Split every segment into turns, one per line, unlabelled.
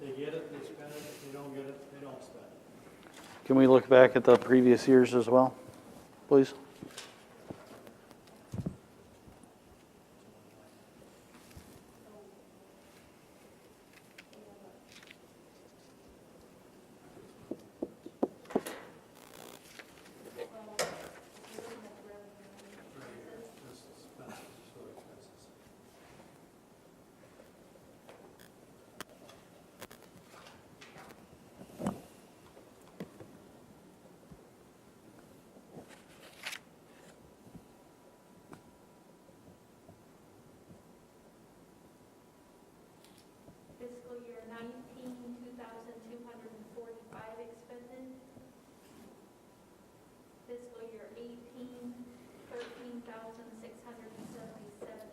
They get it, they spend it, if they don't get it, they don't spend it.
Can we look back at the previous years as well, please?
Just expenses, just for expenses.
Fiscal year 19, 2,245 expended. Fiscal year 18, 13,677 expended.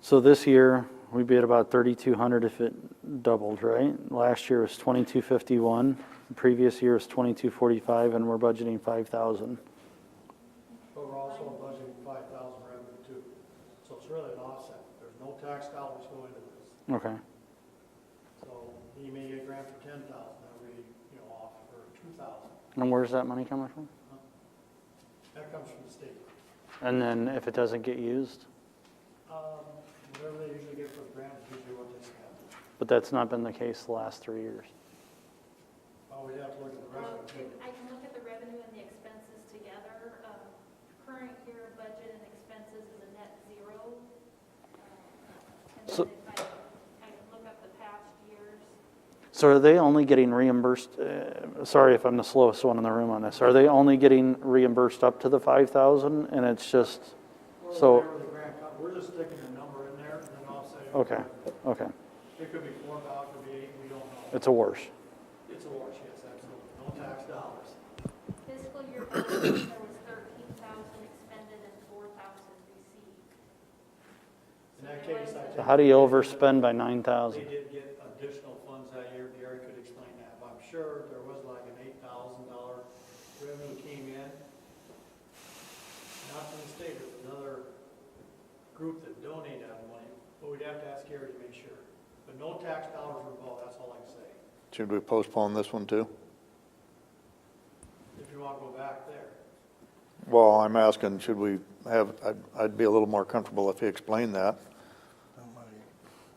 So this year, we'd be at about 3,200 if it doubled, right? Last year was 2,251, the previous year was 2,245, and we're budgeting 5,000.
But we're also budgeting five thousand revenue too. So it's really an offset. There's no tax dollars going to this.
Okay,
So he may get a grant for ten thousand, that we, you know, off for two thousand.
and where's that money coming from?
That comes from the state.
And then if it doesn't get used,
Um, whatever they usually get for the grant is usually what they spend.
but that's not been the case the last three years.
Oh, we have to look at the
Um,
revenue too.
I can look at the revenue and the expenses together. Um, Current year budget and expenses is a net zero. Um, And
So-
then if I, I can look up the past years.
So are they only getting reimbursed, uh, sorry if I'm the slowest one in the room on this, are they only getting reimbursed up to the 5,000 and it's just,
Or
So-
whatever the grant comes, we're just sticking a number in there and then offsetting.
okay, okay,
It could be four thousand, it could be eight, we don't know.
it's a wash.
It's a wash, yes, absolutely. No tax dollars.
Fiscal year 18, there was 13,000 expended and 4,000 received.
In that case, I
So
think.
how do you overspend by 9,000?
They did get additional funds that year, Gary could explain that, but I'm sure there was like an eight thousand dollar revenue came in. Not from the state, it was another group that donated that money, but we'd have to ask Gary to make sure. But no tax dollars were involved, that's all I can say,
Should we postpone this one too?
if you want to go back there.
Well, I'm asking, should we have, I'd, I'd be a little more comfortable if he explained that.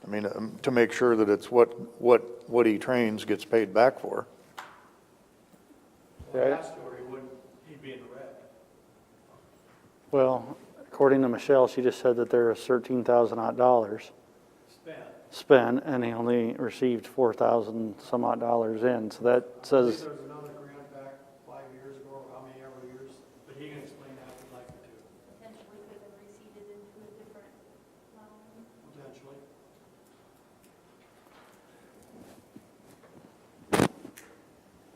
I mean, um, to make sure that it's what, what, what he trains gets paid back for.
Well,
Right.
that's where he wouldn't, he'd be in the red.
Well, according to Michelle, she just said that there was thirteen thousand odd dollars
Spent.
spent, and he only received four thousand some odd dollars in, so that says,
There's another grant back five years ago, or how many ever years, but he can explain that if he'd like to,
potentially could have receded into a different line.
potentially.
I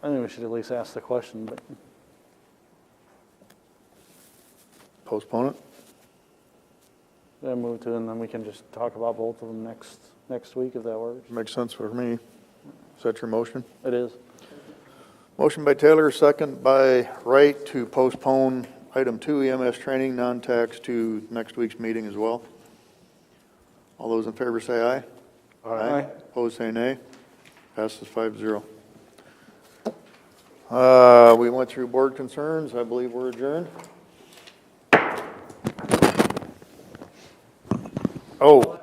think we should at least ask the question, but
Postpone it?
then move to, and then we can just talk about both of them next, next week if that works.
Makes sense for me. Is that your motion?
It is.
Motion by Taylor, second by Wright to postpone item two EMS training, non-tax to next week's meeting as well. All those in favor say aye.
Aye.
Opposed, say nay. Passes five zero. Uh, we went through board concerns. I believe we're adjourned. Oh,